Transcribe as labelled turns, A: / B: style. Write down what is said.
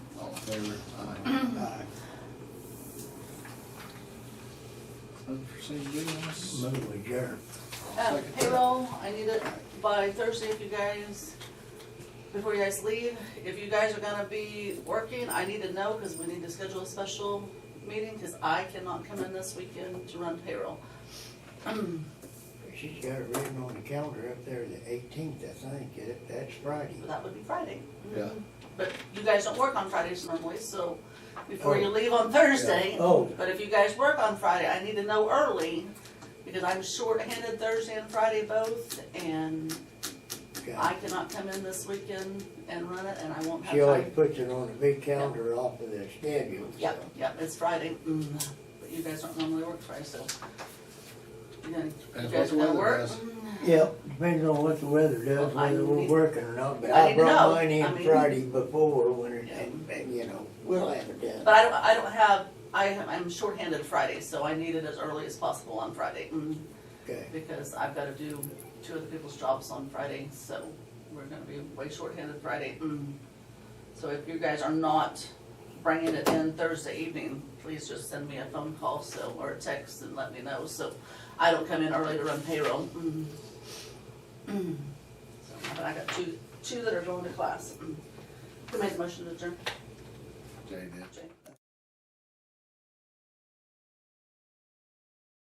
A: favor?
B: Aye.
A: Unforeseen business?
B: Move adjourned.
C: Uh,
A: Second.
C: Payroll, I need it by Thursday if you guys, before you guys leave. If you guys are gonna be working, I need to know, cause we need to schedule a special meeting, cause I cannot come in this weekend to run payroll.
B: She's got it written on the calendar up there, the eighteenth, I think, Get it? that's Friday.
C: But That would be Friday.
A: Yeah.
C: But you guys don't work on Fridays normally, so before you leave on Thursday.
B: Oh.
C: But if you guys work on Friday, I need to know early, because I'm shorthanded Thursday and Friday both, and
B: Okay.
C: I cannot come in this weekend and run it, and I won't have
B: She always
C: time.
B: puts it on the big calendar off of the schedule, so.
C: Yep, yep, it's Friday, Mm, but you guys don't normally work Friday, so. You gonna- you
A: And what's
C: guys are
A: the
C: gonna
A: weather
C: work?
A: does?
C: Mm,
B: Yep, depends on what the weather does,
C: Well, I
B: whether we're
C: need-
B: working or not, but
C: I
B: I
C: need to know.
B: brought mine
C: I
B: in
C: mean-
B: Friday before when it, and, and, you know, we'll have it done.
C: But I don't, I don't have, I, am- I'm shorthanded Friday, so I need it as early as possible on Friday. Mm.
B: Okay,
C: because I've gotta do two other people's jobs on Friday, so we're gonna be way shorthanded Friday. Mm. So if you guys are not bringing it in Thursday evening, please just send me a phone call, so, or a text and let me know, so I don't come in early to run payroll. Mm. Mm. So, But I got two, two that are going to class. Mm. Who made the motion to adjourn?
A: Jay did.
C: Jane?